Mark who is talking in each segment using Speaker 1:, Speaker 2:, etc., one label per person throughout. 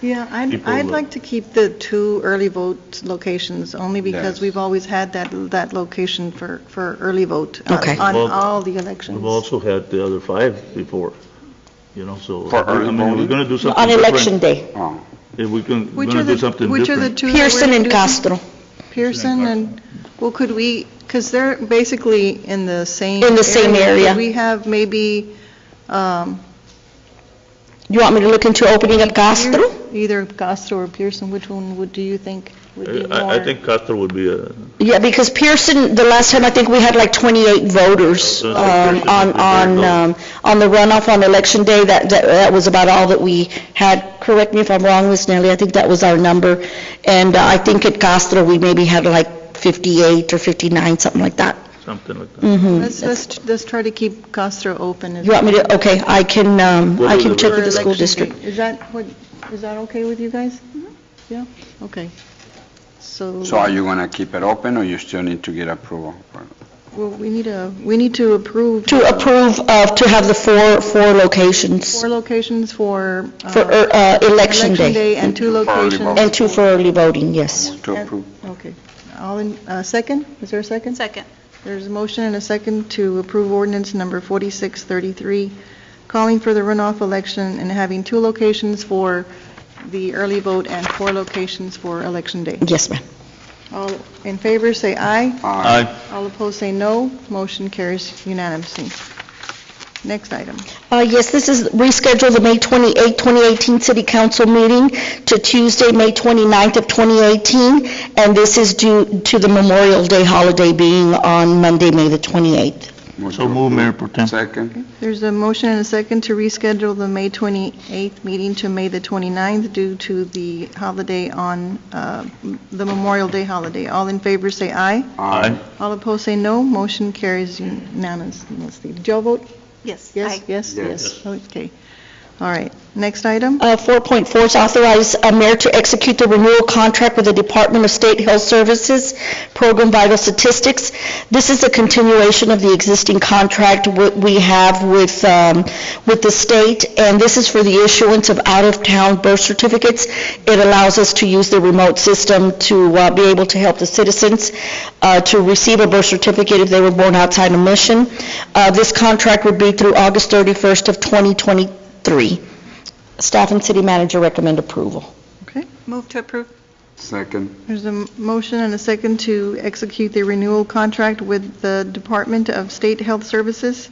Speaker 1: Yeah, I'd,
Speaker 2: people
Speaker 1: I'd
Speaker 2: will-
Speaker 1: like to keep the two early vote locations, only because
Speaker 2: Yes.
Speaker 1: we've always had that, that location for, for early vote on-
Speaker 3: Okay.
Speaker 1: on
Speaker 4: Well,
Speaker 1: all the
Speaker 4: We've
Speaker 1: elections.
Speaker 4: also had the other five before, you know, so.
Speaker 2: For early
Speaker 4: I mean, if we're
Speaker 2: voting?
Speaker 4: going to do something
Speaker 3: On
Speaker 4: different.
Speaker 3: election day,
Speaker 2: Oh,
Speaker 4: If we're going
Speaker 1: Which
Speaker 4: to
Speaker 1: are the-
Speaker 4: do something
Speaker 1: Which are the
Speaker 4: different.
Speaker 1: two? that we're
Speaker 3: Pearson and
Speaker 1: reducing?
Speaker 3: Castro,
Speaker 1: Pearson and, well, could we, because they're basically in the same.
Speaker 3: In the same area.
Speaker 1: Could we have maybe um,
Speaker 3: you want me to look into opening up Castro?
Speaker 1: either Castro or Pearson, which one would, do you think would be more?
Speaker 4: I, I think Castro would be uh, a,
Speaker 3: Yeah, because Pearson, the last time, I think we had like 28 voters
Speaker 4: So,
Speaker 3: um,
Speaker 4: so Oh, Pearson
Speaker 3: on,
Speaker 4: is the
Speaker 3: on,
Speaker 4: third
Speaker 3: um, on the runoff on election day, that, that that was about all that we had. Correct me if I'm wrong, Ms. Nelly, I think that was our number. And uh, I think at Castro, we maybe had like 58 or 59, something like that.
Speaker 4: something like that.
Speaker 3: Mhm.
Speaker 1: Let's, let's, let's try to keep Castro open. as
Speaker 3: You want me to, okay, I can, um,
Speaker 4: What
Speaker 3: I
Speaker 4: are
Speaker 3: can
Speaker 4: the
Speaker 3: check with the
Speaker 4: rest?
Speaker 3: school
Speaker 1: election
Speaker 3: district. Mm-hmm.
Speaker 1: date. Is that, what, is that okay with you guys? Yeah, okay. So,
Speaker 2: so are you going to keep it open, or you still need to get approval? for-
Speaker 1: well, we need a, we need to approve
Speaker 3: To approve of, to have the four, four locations
Speaker 1: four locations for. uh,
Speaker 3: for uh, uh, election
Speaker 1: Election
Speaker 3: day.
Speaker 1: day and two
Speaker 2: For early
Speaker 1: locations.
Speaker 2: vote.
Speaker 3: And two for early voting, yes.
Speaker 2: To approve?
Speaker 1: Okay. All in, uh, second? Is there a second?
Speaker 5: Second.
Speaker 1: There's a motion and a second to approve ordinance number 4633, calling for the runoff election and having two locations for the early vote and four locations for election day.
Speaker 3: Yes, ma'am.
Speaker 1: All in favor, say aye.
Speaker 2: Aye.
Speaker 4: I,
Speaker 1: All opposed say no. Motion carries unanimously. Next item.
Speaker 3: Uh, Yes, this is reschedule the May 28, 2018 City Council meeting to Tuesday, May 29th of 2018, and this is due to the Memorial Day holiday being on Monday, May the 28th.
Speaker 4: so move, Mayor Pro Tem.
Speaker 2: Second?
Speaker 1: There's a motion and a second to reschedule the May 28th meeting to May the 29th due to the holiday on, uh, the Memorial Day holiday. All in favor say aye.
Speaker 4: Aye.
Speaker 1: All opposed say no. Motion carries unanimously. Did y'all vote?
Speaker 5: Yes.
Speaker 1: Yes,
Speaker 5: Aye.
Speaker 1: yes, yes.
Speaker 2: Yes.
Speaker 1: Okay. All right. Next item.
Speaker 3: Uh, 4.4 is authorize a mayor to execute the renewal contract with the Department of State Health Services Program Vital Statistics. This is a continuation of the existing contract wh- we have with, um, with the state, and this is for the issuance of out-of-town birth certificates. It allows us to use the remote system to uh, be able to help the citizens uh, to receive a birth certificate if they were born outside of Mission. Uh, This contract would be through August 31st of 2023. Staff and city manager recommend approval.
Speaker 5: Move to approve.
Speaker 2: Second?
Speaker 1: There's a motion and a second to execute the renewal contract with the Department of State Health Services.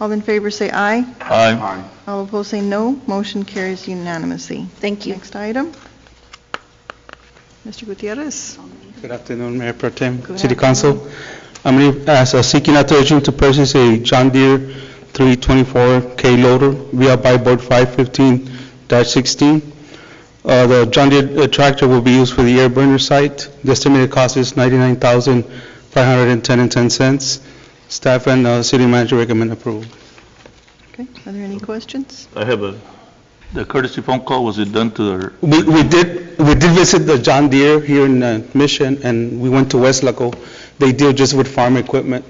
Speaker 1: All in favor say aye.
Speaker 4: Aye.
Speaker 2: Aye.
Speaker 1: All opposed say no. Motion carries unanimously.
Speaker 3: Thank
Speaker 1: Next item. Mr. Gutierrez.
Speaker 6: Good afternoon, Mayor Pro Tem,
Speaker 1: Good
Speaker 6: City Council. I'm re- uh, so seeking authorization to purchase a John Deere 324K loader via by board 515-16. Uh, The John Deere uh, tractor will be used for the air burner site. The estimated cost is $99,510.10. Staff and uh, city manager recommend approval.
Speaker 1: Okay, are there any questions?
Speaker 4: I have a, the courtesy phone call, was it done to their,
Speaker 6: We we did, we did visit the John Deere here in uh, Mission, and we went to West Laco. They deal just with farm equipment,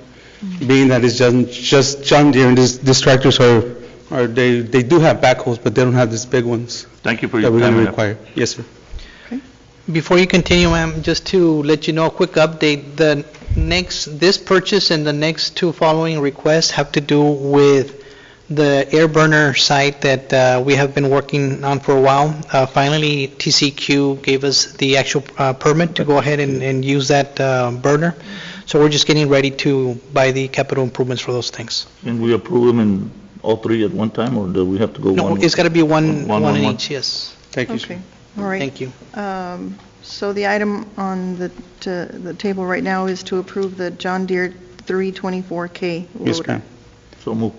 Speaker 6: being that it's just- just John Deere, and these these tractors are, are they they do have backhoes, but they don't have these big ones
Speaker 4: thank you for
Speaker 6: that
Speaker 4: your
Speaker 6: we're
Speaker 4: time.
Speaker 6: going to
Speaker 4: ma'am.
Speaker 6: require. Yes, sir.
Speaker 7: Before you continue, ma'am, just to let you know, a quick update, the next, this purchase and the next two following requests have to do with the air burner site that uh, we have been working on for a while. Uh, Finally, TCQ gave us the actual uh, permit to go ahead and, and use that uh, burner. So we're just getting ready to buy the capital improvements for those things.
Speaker 4: Can we approve them in all three at one time, or do we have to go
Speaker 7: No,
Speaker 4: one?
Speaker 7: it's got to be one,
Speaker 4: One,
Speaker 7: one in
Speaker 4: one.
Speaker 7: each, yes.
Speaker 6: Thank you, sir.
Speaker 1: Okay, all right.
Speaker 7: Thank you.
Speaker 1: Um, So the item on the, to- the table right now is to approve the John Deere 324K loader.
Speaker 6: Yes, ma'am.
Speaker 4: So move.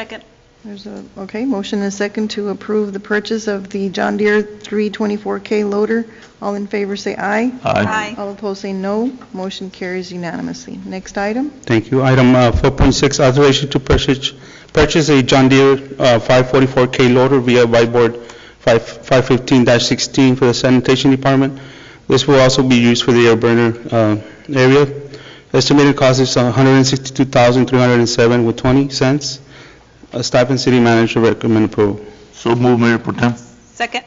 Speaker 5: Second.
Speaker 1: There's a, okay, motion and a second to approve the purchase of the John Deere 324K loader. All in favor, say aye.
Speaker 5: Aye.
Speaker 1: All opposed, say no. Motion carries unanimously. Next item,
Speaker 6: Thank you. Item uh, 4.6, authorization to purchase, purchase a John Deere uh, 544K loader via by board 5 515-16 for the sanitation department. This will also be used for the air burner uh, area. Estimated cost is $162,307 with 20 cents. Uh, Staff and city manager recommend approval.
Speaker 4: So move, Mayor Pro Tem.
Speaker 5: Second.